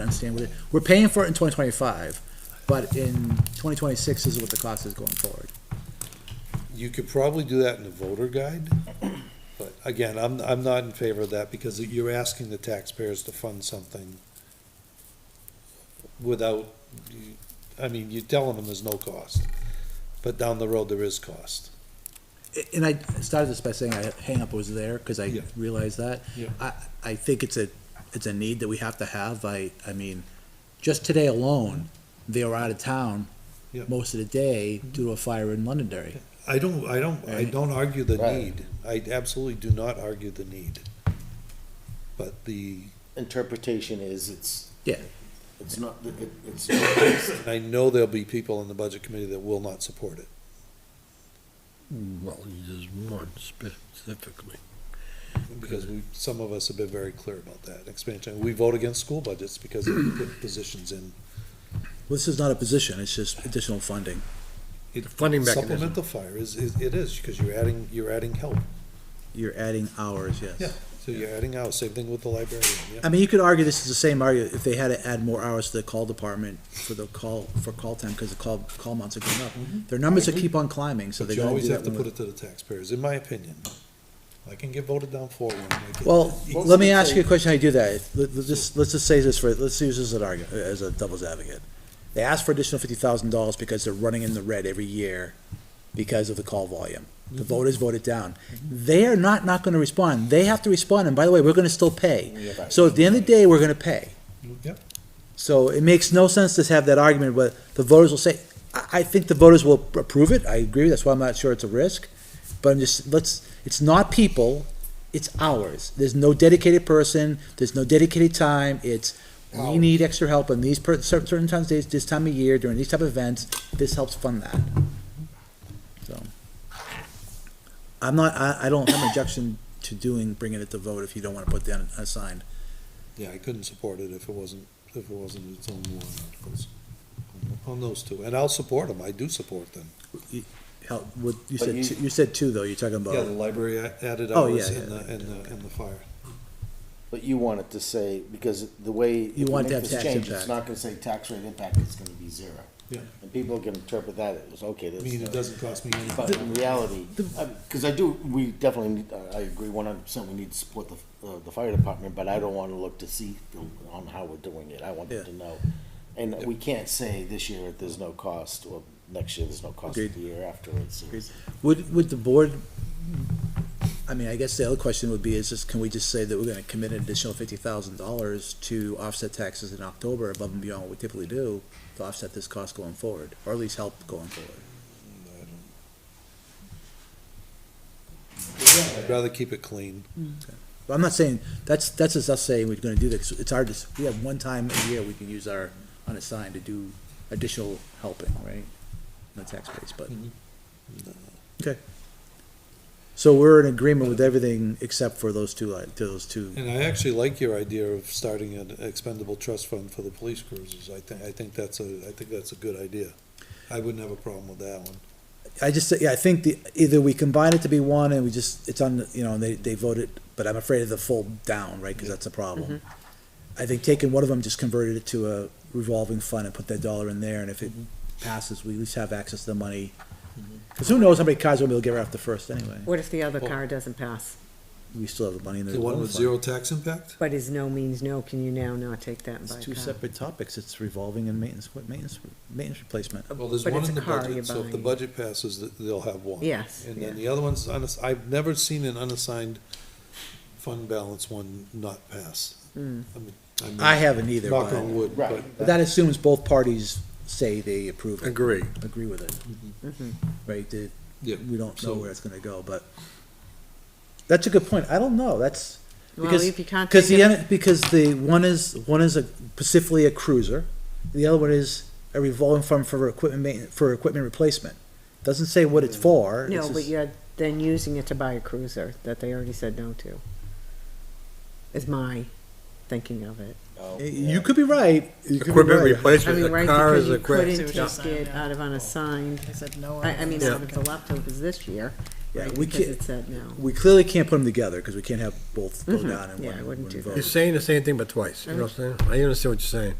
understand what it, we're paying for it in twenty twenty-five, but in twenty twenty-six is what the cost is going forward. You could probably do that in the voter guide, but again, I'm, I'm not in favor of that because you're asking the taxpayers to fund something without, I mean, you're telling them there's no cost, but down the road there is cost. A- And I started this by saying I, hang up was there, cause I Yeah. realized that. Yeah. I, I think it's a, it's a need that we have to have, I, I mean, just today alone, they were out of town Yeah. Mm-hmm. most of the day due to a fire in Londonderry. I don't, I don't, I Right. don't argue the Right. need. I absolutely do not argue the need. But the, interpretation is it's. Yeah. It's not, it, it's, not- I know there'll be people in the budget committee that will not support it. Well, there's one specifically. because we, some of us have been very clear about that expansion. We vote against school budgets because we put positions in. This is not a position, it's just additional funding. The funding mechanism. Supplemental fire is, is, it is, because you're adding, you're adding help. You're adding hours, yes. So you're adding out, same thing with the librarian, yeah. I mean, you could argue this is the same argument if they had to add more hours to the call department for the call, for call time, because the call, call months are going up. Their numbers are keep on climbing, so Mm-hmm. But they you gotta do always have that. to put when- it to the taxpayers, in my opinion. I can get voted down for one. I get- Well, You- let me ask you a question, how you do that, let, let's just, let's just say this for, let's use this as an argument, as a devil's advocate. They ask for additional fifty thousand dollars because they're running in the red every year because of the call volume. The Mm-hmm. voters voted down. They are not, not gonna respond, they have to respond, and by the way, we're gonna still pay. So at the end of the day, we're gonna pay. Yeah, So it makes no sense to have that argument, but the voters will say, I, I think the voters will approve it, I agree, that's why I'm not sure it's a risk. But I'm just, let's, it's not people, it's ours. There's no dedicated person, there's no dedicated time, it's, we need extra help on these per, certain, certain times, days, this time of year, during these type of events, this helps fund that. So. I'm not, I, I don't have an objection to doing, bringing it to vote if you don't wanna put down a sign. yeah, I couldn't support it if it wasn't, if it wasn't its own warrant articles. On those two, and I'll support them, I do support them. How, what, you But said, you- two- you said two though, you're talking about. Yeah, the library a- added Oh, hours yeah, and yeah, the, and the, and the fire. but you want it to say, because the way. if we want to have make this tax change, impact. It's not gonna say tax rate impact, it's gonna be zero. Yeah. And people can interpret that, it was, okay, I this. mean, it doesn't cost me any. But in reality, because I do, we definitely, need- I- I agree one hundred percent, we need to support the, uh, the fire department, but I don't want to look to see on how we're doing it, I want them to know. And we can't say this year there's no cost, or next year there's no cost, the Agreed. year afterwards. Agreed. Would, would the board, I mean, I guess the other question would be is just, can we just say that we're gonna commit an additional fifty thousand dollars to offset taxes in October above and beyond what we typically do to offset this cost going forward, or at least help going forward? I'd rather keep it clean. But I'm not saying, that's, that's just us saying we're gonna do this, it's our, dis- we have one time a year we can use our unassigned to do additional helping, right? In the tax base, but. Okay. So we're in agreement with everything except for those two, li- those two And I actually like your idea of starting an expendable trust fund for the police cruisers. I think, I think that's a, I think that's a good idea. I wouldn't have a problem with that one. I just, yeah, I think the, either we combine it to be one and we just, it's on, you know, and they, they voted, but I'm afraid of the full down, right, cause that's a problem. I think taking one of them, just converted it to a revolving fund and put that dollar in there, and if it passes, we at least have access to the money. Cause who knows how many cars we'll be able to get after first anyway, What if the other Well- car doesn't pass, we still have the money in the The one revolving with fund. zero tax impact? but is no means no, can you now not take that and It's buy two a car? separate topics, it's revolving and maintenance, what, maintenance, maintenance replacement. Well, there's Uh, But one it's in a the car budget, you're so if the buying. budget passes, th- they'll have one. Yes, And yeah. then the other one's, unass- I've never seen an unassigned fund balance one not pass. I Hmm. mean- mean, I haven't either, Knock on but, wood, but but that assumes both parties say they approve it. Agree. agree with it. Mm-hmm. Right, the- Yeah, we don't know so- where it's gonna go, but that's a good point. I don't know, that's. Well, because- if you can't Because take the, it- other- because the, one is, one is a specifically a cruiser, the other one is a revolving fund for equipment ma- for equipment replacement. Doesn't say what it's for. it's No, but just- you're then using it to buy a cruiser that they already said no to. Is my thinking of it. Oh, You could be right. you could be Equipment right. I replacement, mean, the right, car because is you equipped. couldn't See what you're take saying, it yeah. out of unassigned, I said no. I, I mean, Yeah. out of the leftovers this year, Yeah, right? we Because can't- it said no. We clearly can't put them together because we can't have both go Mhm. down and Yeah, I one, wouldn't one do that. vote. You're saying the same thing but twice, you know what I'm saying? I understand what you're saying.